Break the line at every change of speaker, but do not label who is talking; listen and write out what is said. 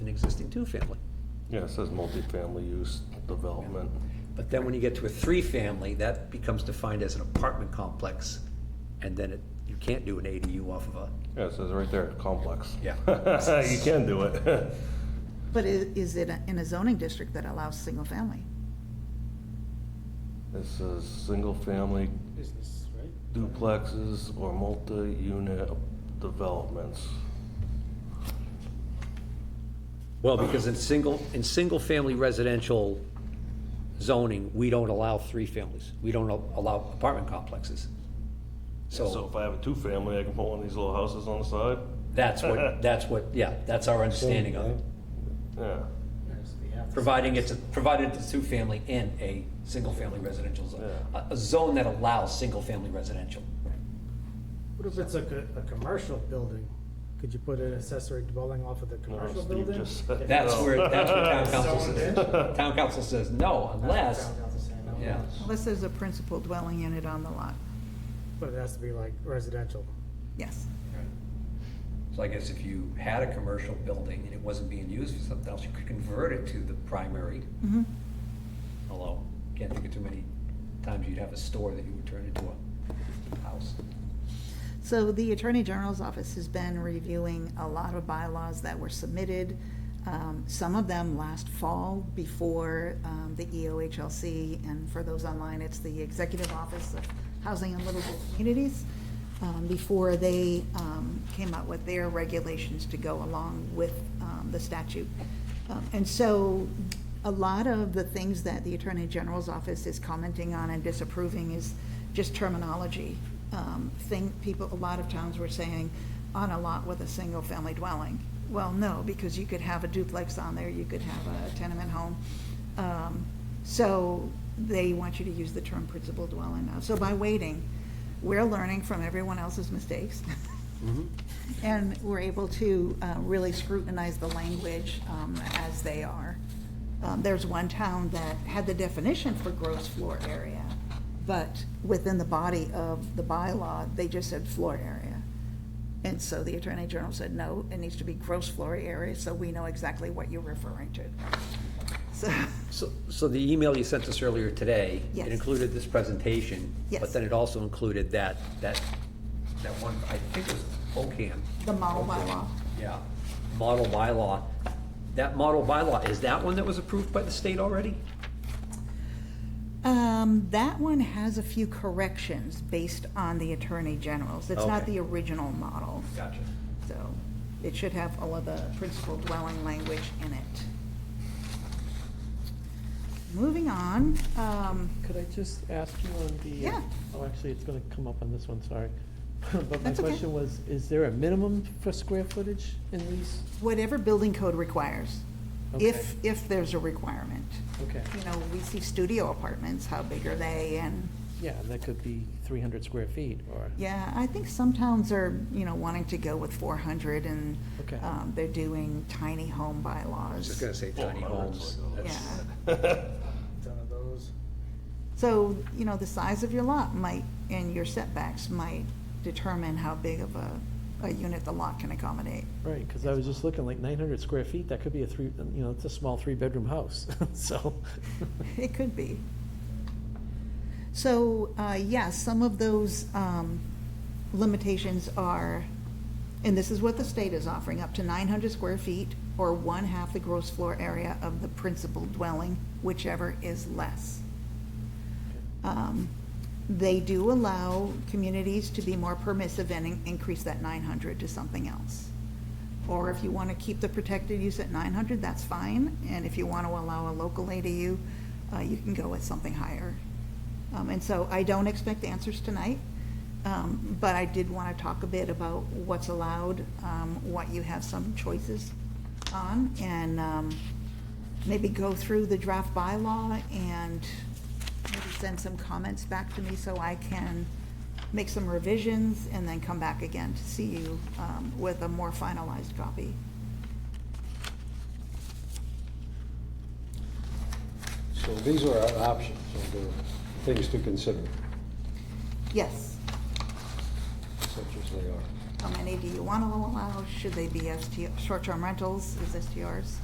two-family.
Yeah, it says multifamily use development.
But then when you get to a three-family, that becomes defined as an apartment complex, and then it, you can't do an ADU off of a,
Yeah, it says right there, complex.
Yeah.
You can do it.
But i- is it a- in a zoning district that allows single family?
This is single-family
business, right?
duplexes or multi-unit developments.
well, because in single, in single-family residential zoning, we don't allow three families. We don't al- allow apartment complexes.
So
So
if I have a two-family, I can put one of these little houses on the side?
that's what, that's what, yeah, that's our understanding of it.
Yeah,
Yes, they have to-
Providing it's, a- provided it's a two-family in a single-family residential zone.
Yeah.
A- A zone that allows single-family residential.
What if it's a, co- a commercial building? Could you put an accessory dwelling off of the
No,
commercial
Steve
building?
just said-
That's where, that's what town council
Oh. Someone
says. Town council says no
That's
unless,
what town council's saying, no.
yeah.
Unless there's a principal dwelling unit on the lot.
But it has to be like residential.
Yes.
So I guess if you had a commercial building and it wasn't being used for something else, you could convert it to the primary.
Mhm.
Although, can't think of too many times you'd have a store that you would turn into a house.
So the Attorney General's office has been reviewing a lot of bylaws that were submitted, um, some of them last fall before um, the EOHLC, and for those online, it's the Executive Office of Housing and Livable Communities, um, before they um, came out with their regulations to go along with um, the statute. Um, And so a lot of the things that the Attorney General's office is commenting on and disapproving is just terminology. Um, Thing, people, a lot of towns were saying, on a lot with a single-family dwelling. Well, no, because you could have a duplex on there, you could have a tenement home. Um, So they want you to use the term principal dwelling now. So by waiting, we're learning from everyone else's mistakes. And we're able to uh, really scrutinize the language um, as they are. Um, There's one town that had the definition for gross floor area, but within the body of the bylaw, they just said floor area. And so the Attorney General said, no, it needs to be gross floor area, so we know exactly what you're referring to. So,
So, so the email you sent us earlier today,
Yes.
it included this presentation. But
Yes.
then it also included that, that, that one, I think it was OCAM.
the model bylaw,
Yeah, model bylaw. That model bylaw, is that one that was approved by the state already?
Um, that one has a few corrections based on the Attorney General's. It's not
Okay.
the original model.
Gotcha.
So it should have all of the principal dwelling language in it. Moving on, um,
Could I just ask you on the? uh,
Yeah.
Oh, actually, it's gonna come up on this one, sorry. But my
That's okay.
question was, is there a minimum for square footage in these?
whatever building code requires, if,
Okay.
if there's a requirement.
Okay,
You know, we see studio apartments, how big are they, and,
yeah, that could be three hundred square feet or.
yeah, I think some towns are, you know, wanting to go with four hundred, and
Okay.
um, they're doing tiny home bylaws.
I was just gonna say tiny homes.
Yeah.
Ton of those.
So, you know, the size of your lot might, and your setbacks might determine how big of a, a unit the lot can accommodate.
Right, because I was just looking, like nine hundred square feet, that could be a three, you know, it's a small three-bedroom house, so.
It could be. So, uh, yes, some of those um, limitations are, and this is what the state is offering, up to 900 square feet or one-half the gross floor area of the principal dwelling, whichever is less. Um, They do allow communities to be more permissive and in- increase that 900 to something else. Or if you want to keep the protected use at 900, that's fine. And if you want to allow a local ADU, uh, you can go with something higher. Um, And so I don't expect answers tonight, um, but I did want to talk a bit about what's allowed, um, what you have some choices on, and um, maybe go through the draft bylaw and maybe send some comments back to me so I can make some revisions and then come back again to see you um, with a more finalized copy.
So these are our options, so they're things to consider,
Yes,
such as they are.
how many do you want to allow? Should they be ST, short-term rentals, is STRs?